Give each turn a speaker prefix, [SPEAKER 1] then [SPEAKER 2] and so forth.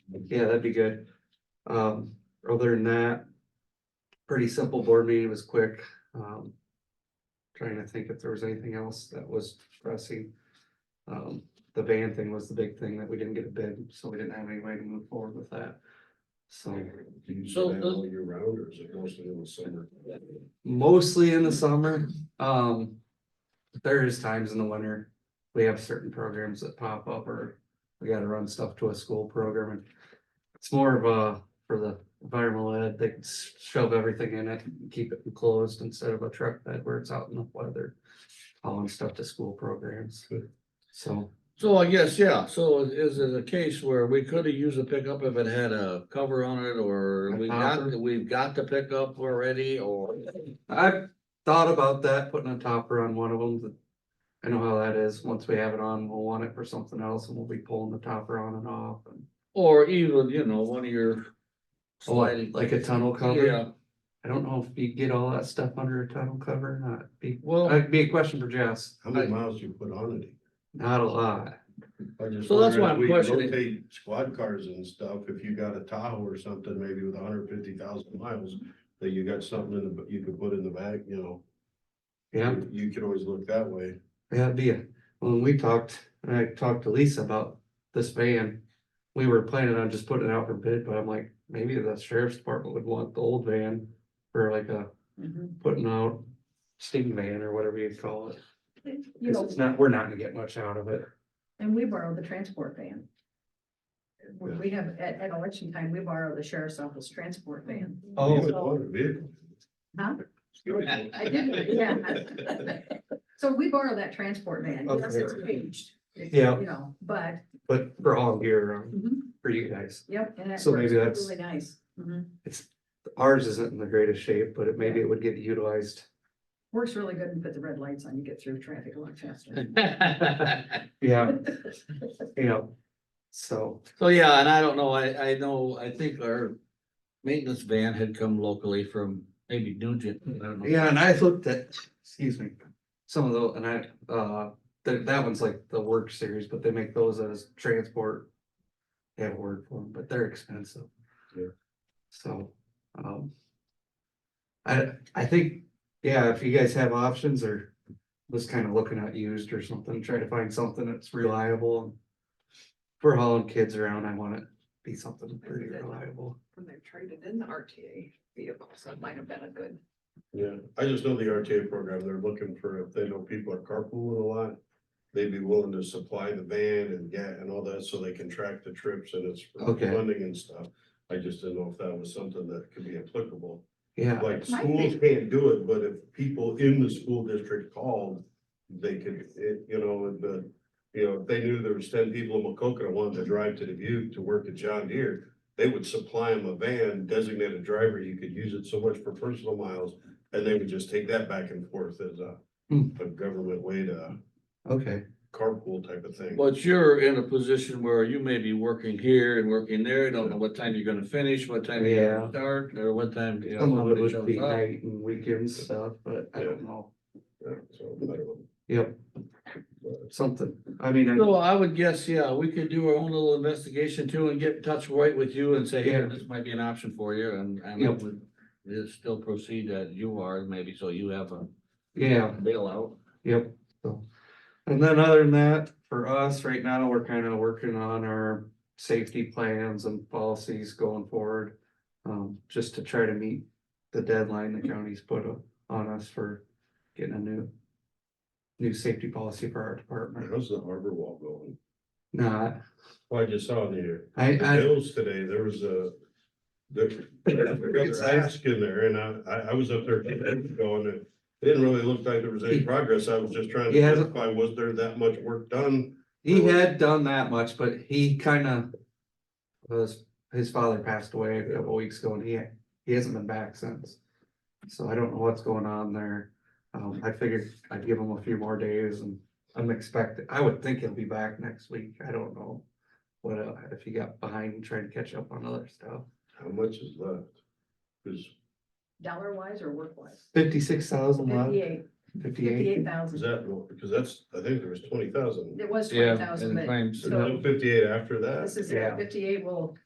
[SPEAKER 1] yeah, that'd be good. Um, other than that. Pretty simple board meeting, it was quick, um. Trying to think if there was anything else that was pressing. Um, the van thing was the big thing that we didn't get a bid, so we didn't have any way to move forward with that. So
[SPEAKER 2] Do you
[SPEAKER 3] So
[SPEAKER 2] do that
[SPEAKER 3] those-
[SPEAKER 2] all year round or is it mostly in the summer?
[SPEAKER 1] mostly in the summer, um. There is times in the winter, we have certain programs that pop up or we gotta run stuff to a school program and. It's more of a, for the environmental ed, they can s- shove everything in it, and keep it enclosed instead of a truck bed where it's out in the weather. Hauling stuff to school programs, so,
[SPEAKER 3] So I guess, yeah, so is it a case where we could have used a pickup if it had a cover on it or
[SPEAKER 1] A
[SPEAKER 3] we got,
[SPEAKER 1] topper?
[SPEAKER 3] we've got the pickup already or?
[SPEAKER 1] I've thought about that, putting a topper on one of them, but. I know how that is, once we have it on, we'll want it for something else and we'll be pulling the topper on and off and.
[SPEAKER 3] Or even, you know, one of your.
[SPEAKER 1] Oh, like-
[SPEAKER 3] sliding-
[SPEAKER 1] like a tunnel cover?
[SPEAKER 3] Yeah,
[SPEAKER 1] I don't know if you get all that stuff under a tunnel cover or not. Be,
[SPEAKER 3] well,
[SPEAKER 1] that'd be a question for Jess.
[SPEAKER 2] How many
[SPEAKER 3] I-
[SPEAKER 2] miles do you put on it?
[SPEAKER 1] Not a lot.
[SPEAKER 2] I just
[SPEAKER 3] So that's
[SPEAKER 2] wonder
[SPEAKER 3] why
[SPEAKER 2] if
[SPEAKER 3] I'm
[SPEAKER 2] we
[SPEAKER 3] questioning-
[SPEAKER 2] rotate Squad cars and stuff, if you got a Tahoe or something, maybe with hundred fifty thousand miles, that you got something in the, you could put in the back, you know.
[SPEAKER 1] Yeah,
[SPEAKER 2] you- You could always look that way.
[SPEAKER 1] that'd be a, when we talked, and I talked to Lisa about this van. We were planning on just putting it out for bid, but I'm like, maybe the sheriff's department would want the old van for like a
[SPEAKER 4] Mm-hmm.
[SPEAKER 1] putting out steam van or whatever you call it.
[SPEAKER 5] You
[SPEAKER 1] Cause
[SPEAKER 5] know,
[SPEAKER 1] it's not, we're not gonna get much out of it.
[SPEAKER 5] and we borrow the transport van. We we have, at, at election time, we borrow the sheriff's office transport van.
[SPEAKER 1] Oh.
[SPEAKER 2] You would want a vehicle.
[SPEAKER 4] Mm-hmm.
[SPEAKER 5] Huh?
[SPEAKER 2] Excuse me.
[SPEAKER 5] I did, yeah. So we borrow that transport van, yes, it's
[SPEAKER 1] Okay.
[SPEAKER 5] aged. It's,
[SPEAKER 1] Yeah.
[SPEAKER 5] You know, but,
[SPEAKER 1] But for all gear, um,
[SPEAKER 5] mhm,
[SPEAKER 1] for you guys,
[SPEAKER 5] yep, and that
[SPEAKER 1] So maybe
[SPEAKER 5] works
[SPEAKER 1] that's-
[SPEAKER 5] really nice. Mhm.
[SPEAKER 1] ours isn't in the greatest shape, but it maybe it would get utilized.
[SPEAKER 5] Works really good and put the red lights on, you get through traffic a lot faster.
[SPEAKER 1] Yeah. you know, so,
[SPEAKER 3] so yeah, and I don't know, I, I know, I think our maintenance van had come locally from maybe Nugent. I don't know.
[SPEAKER 1] yeah, and I looked at, excuse me, some of those, and I, uh, that, that one's like the work series, but they make those as transport. They have a word for them, but they're expensive.
[SPEAKER 2] Yeah.
[SPEAKER 1] So, um. I, I think, yeah, if you guys have options or was kind of looking at used or something, try to find something that's reliable. If we're hauling kids around, I want it to be something pretty reliable.
[SPEAKER 4] when they're traded in the RTA vehicle, so it might have been a good.
[SPEAKER 2] Yeah, I just know the RTA program, they're looking for, if they know people are carpooling a lot, they'd be willing to supply the van and get and all that, so they can track the trips and it's for
[SPEAKER 1] Okay.
[SPEAKER 2] funding and stuff. I just didn't know if that was something that could be applicable,
[SPEAKER 1] Yeah.
[SPEAKER 2] like
[SPEAKER 4] Might
[SPEAKER 2] schools can't do it, but if people in the school district called, they could, it, you know, and the, you know, if they knew there was ten people in Macokota wanted to drive to Dubuque to work at John Deere, they would supply them a van, designate a driver, you could use it so much for personal miles, and they would just take that back and forth as a,
[SPEAKER 1] Hmm.
[SPEAKER 2] a government way to
[SPEAKER 1] Okay,
[SPEAKER 2] carpool type of thing.
[SPEAKER 3] But you're in a position where you may be working here and working there, you don't know what time you're gonna finish, what time you're
[SPEAKER 1] Yeah.
[SPEAKER 3] gonna start, or what time, you know.
[SPEAKER 1] some of it
[SPEAKER 3] somebody
[SPEAKER 1] would
[SPEAKER 3] shows
[SPEAKER 1] be
[SPEAKER 3] up.
[SPEAKER 1] night and weekend stuff, but I don't know,
[SPEAKER 2] Yeah, so, I don't know.
[SPEAKER 1] yep. Something, I mean, I-
[SPEAKER 3] So I would guess, yeah, we could do our own little investigation too and get in touch right with you and say, hey,
[SPEAKER 1] Yeah.
[SPEAKER 3] this might be an option for you and, and
[SPEAKER 1] Yep.
[SPEAKER 3] it would just still proceed that you are maybe, so you have a
[SPEAKER 1] yeah,
[SPEAKER 3] bailout.
[SPEAKER 1] yep, so. And then other than that, for us, right now, we're kind of working on our safety plans and policies going forward. Um, just to try to meet the deadline the county's put o- on us for getting a new. New safety policy for our department,
[SPEAKER 2] How's the harbor wall going?
[SPEAKER 1] not,
[SPEAKER 2] Well, I just saw it here.
[SPEAKER 1] I,
[SPEAKER 2] the
[SPEAKER 1] I,
[SPEAKER 2] Bills today, there was a. There, there was a ask in there and I, I, I was up there two days ago and it didn't really look like there was any progress. I was just trying to
[SPEAKER 1] He hasn't-
[SPEAKER 2] identify, was there that much work done?
[SPEAKER 1] he had done that much, but he kind of. was, his father passed away a couple weeks ago and he, he hasn't been back since. So I don't know what's going on there. Um, I figured I'd give him a few more days and I'm expecting, I would think he'll be back next week. I don't know. What, uh, if he got behind trying to catch up on other stuff.
[SPEAKER 2] How much is left? Is,
[SPEAKER 5] Dollar wise or work wise?
[SPEAKER 1] Fifty-six thousand left,
[SPEAKER 5] Fifty-eight,
[SPEAKER 1] fifty-eight.
[SPEAKER 5] fifty-eight thousand.
[SPEAKER 2] is that, more? because that's, I think there was twenty thousand.
[SPEAKER 5] It was twenty thousand, but
[SPEAKER 3] claims.
[SPEAKER 2] Fifty-eight after that?
[SPEAKER 5] this is
[SPEAKER 1] Yeah.
[SPEAKER 5] fifty-eight will